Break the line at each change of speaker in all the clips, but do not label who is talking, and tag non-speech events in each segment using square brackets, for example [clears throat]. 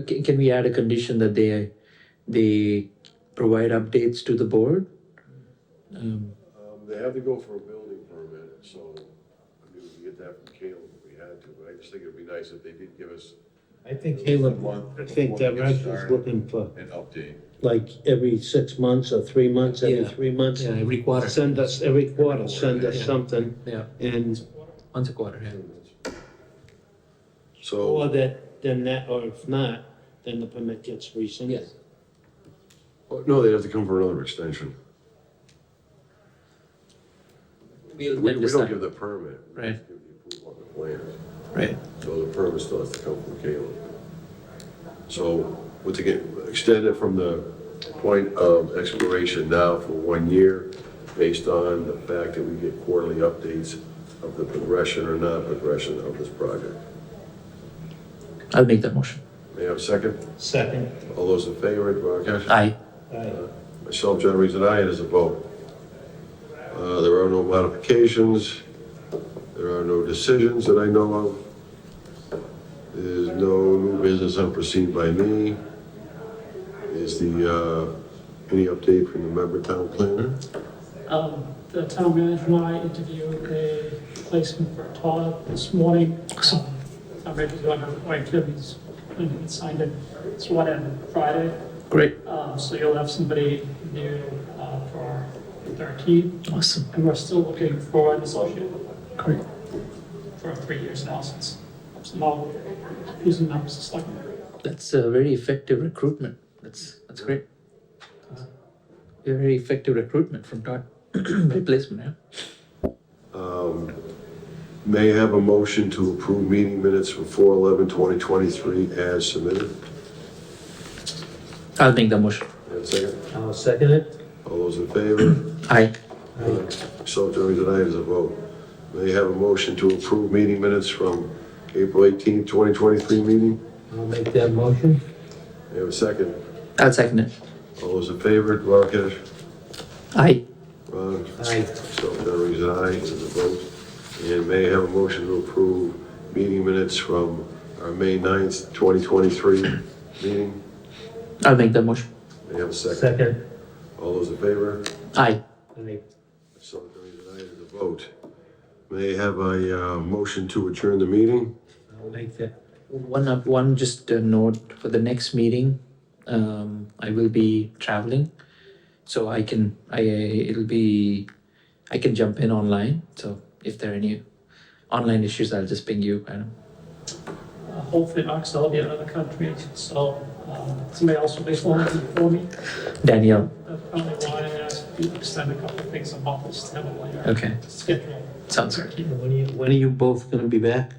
Can, can we add a condition that they, they provide updates to the board? Um,
Um, they have to go for a building permit, so, I mean, we get that from Caleb if we had to, but I just think it'd be nice if they did give us
I think Caleb, I think that Raj was looking for
an update.
like every six months or three months, every
Yeah.
three months.
Yeah, every quarter,
Send us, every quarter, send us
Yeah.
something
yeah,
and,
once a quarter, yeah.
or
So,
that, then that, or if not, then the permit gets rescinded.
Yes.
no, they'd have to come for another extension.
We'll
We, we
then
don't
decide,
give the permit. we
Right.
just give the approval on the plan.
right?
So the permit still has to come from Caleb. So, what to get, extend it from the point of expiration now for one year, based on the fact that we get quarterly updates of the progression or non-progression of this project.
I'll make that motion.
May I have a second?
Second.
All those in favor, Rakesh?
Aye.
Aye.
Myself, John Reed, and I, it is a vote. Uh, There are no modifications. There are no decisions that I know of. There's no new business unforeseen by me. Is the, uh, any update from the member town planner?
Um, The town manager and I interviewed a replacement for Todd this morning. Um, I'm ready to go on my activities when he signed it. It's one on Friday,
Great,
um, so you'll have somebody new uh, for thirteen.
awesome,
And we're still looking for an associate
great.
for three years now since, now, using numbers, it's like,
That's a very effective recruitment. That's, that's great. Very effective recruitment from Todd, [clears throat] replacement, yeah?
May I have a motion to approve meeting minutes from 4/11/2023 as submitted?
I'll make the motion.
May I have a second?
I'll second it.
All those in favor?
Aye.
So during the night is a vote. May I have a motion to approve meeting minutes from April 18, 2023 meeting?
I'll make that motion.
May I have a second?
I'll second it.
All those in favor, Rakesh?
Aye.
Ron?
Aye.
So during the night is a vote. And may I have a motion to approve meeting minutes from our May 9th, 2023 meeting?
I'll make the motion.
May I have a second?
Second.
All those in favor?
Aye.
Aye.
So during the night is a vote. May I have a uh, motion to adjourn the meeting?
I'll make that.
One up, one just a note for the next meeting. Um, I will be traveling, so I can I it'll be I can jump in online. So if there are any online issues, I'll just ping you. I don't.
uh, hopefully Mark's will be in another country, so um, somebody else will be filling in for me.
Danielle.
That's probably why I asked you to extend a couple of things a month instead of like our
Okay,
schedule.
sounds good.
When are you, when are you both gonna be back?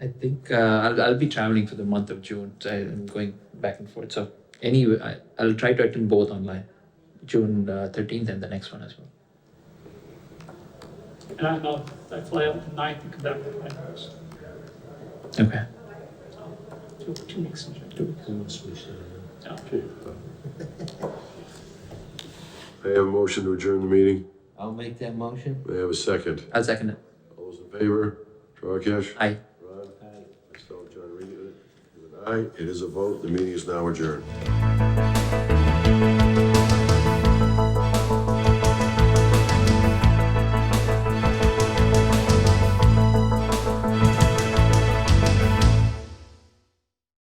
I think uh, I'll I'll be traveling for the month of June. So I'm going back and forth. So anyway, I, I'll try to attend both online, June uh, thirteenth and the next one as well.
And I know I fly out the ninth and come back with my nurse.
Okay.
Two, two weeks in January. Yeah.
May I have a motion to adjourn the meeting?
I'll make that motion.
May I have a second?
I'll second it.
All those in favor? Rakesh?
Aye.
Ron? Myself, John Reed. Aye, it is a vote. The meeting is now adjourned.